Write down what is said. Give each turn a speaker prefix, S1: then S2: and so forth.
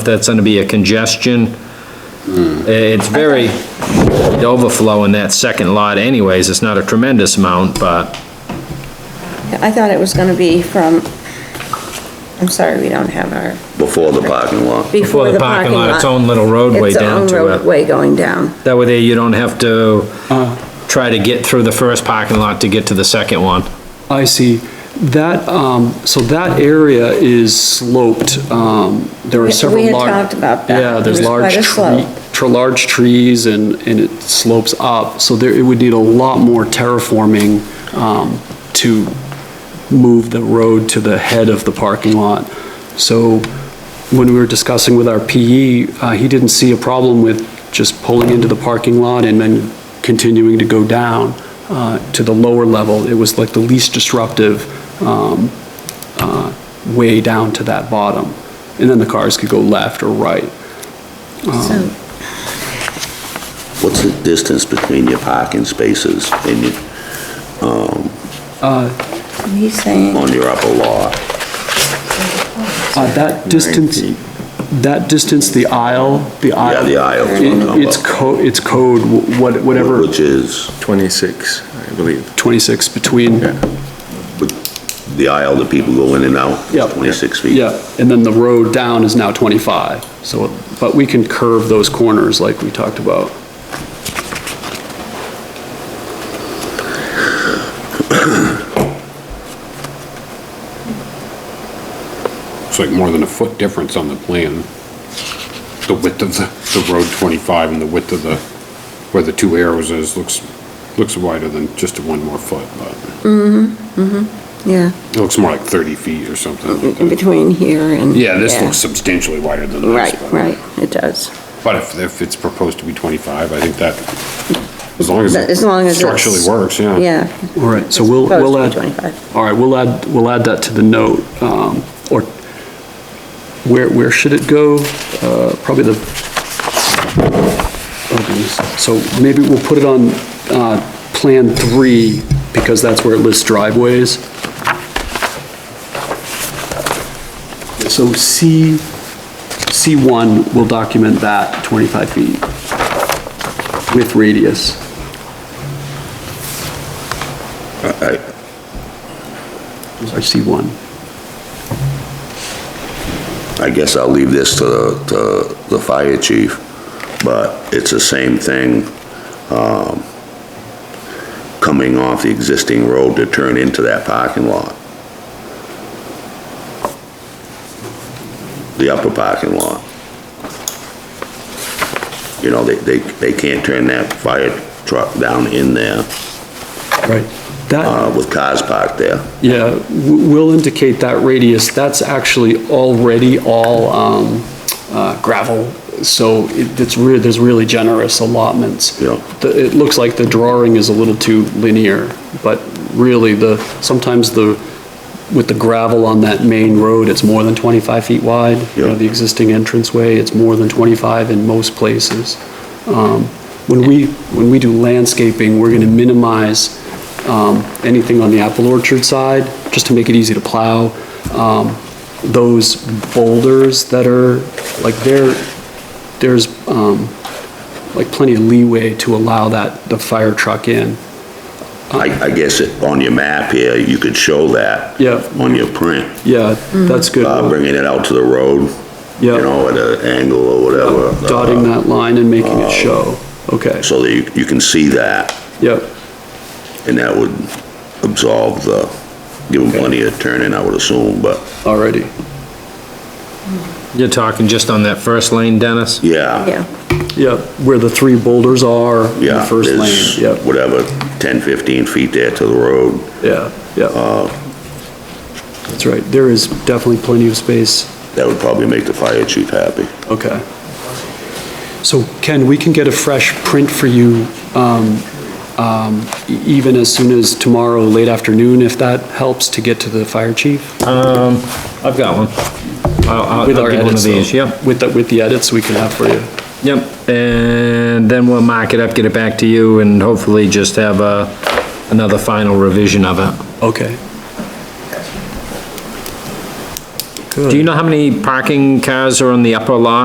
S1: that's gonna be a congestion. Eh, It's very overflow in that second lot anyways, it's not a tremendous amount, but
S2: I thought it was gonna be from, I'm sorry, we don't have our,
S3: before the parking lot.
S1: before the parking lot, its own little roadway
S2: It's
S1: down
S2: own
S1: to it.
S2: roadway going down.
S1: That way there you don't have to try to get through the first parking lot to get to the second one.
S4: I see. That, um, so that area is sloped, um, there are
S2: We-
S4: several
S2: we had
S4: large.
S2: talked about that.
S4: Yeah, there's
S2: There's
S4: large
S2: quite a
S4: tree,
S2: slope.
S4: tre- large trees and, and it slopes up, so there, it would need a lot more terraforming, um, to move the road to the head of the parking lot. So when we were discussing with our PE, uh, he didn't see a problem with just pulling into the parking lot and then continuing to go down, uh, to the lower level. It was like the least disruptive, um, uh, way down to that bottom. And then the cars could go left or right.
S2: So,
S5: Oh.
S3: What's the distance between your parking spaces and your,
S2: he's saying,
S3: on your upper lot?
S4: Uh, That distance,
S3: feet.
S4: that distance, the aisle, the aisle.
S3: the aisle.
S4: it- It's code, it's code, wh- what- whatever,
S3: Which is,
S6: 26, I believe.
S4: 26 between,
S3: the aisle that people go in and out,
S4: Yep.
S3: is 26 feet.
S4: yeah, and then the road down is now 25. So, but we can curve those corners like we talked about.
S5: It's like more than a foot difference on the plan. The width of the, the road 25 and the width of the, where the two arrows is, looks, looks wider than just one more foot, but
S2: yeah,
S5: it looks more like 30 feet or something. like
S2: in
S5: that.
S2: between here and.
S5: Yeah, this looks substantially wider than this.
S2: Right,
S5: but-
S2: right, it does.
S5: But if, if it's proposed to be 25, I think that, as long as. it
S2: As long as it's-
S5: Structurally works, yeah.
S2: Yeah.
S4: All right, so
S2: It's
S4: we'll,
S2: supposed
S4: we'll
S2: to be
S4: add.
S2: 25.
S4: All right, we'll add, we'll add that to the note, um, or where, where should it go? Uh, probably the, okay, so maybe we'll put it on, uh, Plan 3, because that's where it lists driveways. So C, C1 will document that 25 feet with radius.
S3: I- I-
S4: Sorry, C1.
S3: I guess I'll leave this to, to the fire chief, but it's the same thing, um, coming off the existing road to turn into that parking lot. The upper parking lot. You know, they, they, they can't turn that fire truck down in there,
S4: Right. That,
S3: uh, with cars parked there.
S4: Yeah, w- we'll indicate that radius, that's actually already all um, uh, gravel, so it- it's really, there's really generous allotments.
S3: Yeah.
S4: The- It looks like the drawing is a little too linear, but really the, sometimes the, with the gravel on that main road, it's more than 25 feet wide. You know,
S3: Yeah.
S4: the existing entranceway, it's more than 25 in most places. Um, When we, when we do landscaping, we're gonna minimize um, anything on the apple orchard side, just to make it easy to plow. Um, Those boulders that are, like, there, there's um, like plenty of leeway to allow that, the fire truck in.
S3: I, I guess it, on your map here, you could show that.
S4: Yeah.
S3: On your print.
S4: Yeah, that's good.
S3: uh, bringing it out to the road, you
S4: Yeah.
S3: know, at an angle or whatever.
S4: Dotting
S3: uh,
S4: that line and making it show. Okay,
S3: So that you, you can see that,
S4: yep,
S3: and that would absolve the, give them plenty of turning, I would assume, but,
S4: alrighty.
S1: You're talking just on that first lane, Dennis?
S3: yeah.
S2: Yeah,
S4: Yep, where the three boulders are in
S3: Yeah,
S4: the first
S3: there's
S4: lane. Yep,
S3: Whatever, 10, 15 feet there to the road,
S4: yeah, yeah. That's right, there is definitely plenty of space.
S3: that would probably make the fire chief happy.
S4: Okay. So Ken, we can get a fresh print for you um, um, e- even as soon as tomorrow, late afternoon, if that helps to get to the fire chief?
S1: Um, I've got one. I'll, I'll-
S4: With
S1: I'll
S4: our
S1: get one of
S4: edits, though.
S1: these, yep.
S4: With the, with the edits we can have for you.
S1: Yep, and then we'll mark it up, get it back to you, and hopefully just have a, another final revision of it.
S4: Okay.
S1: Do you know how many parking cars are on the upper lot?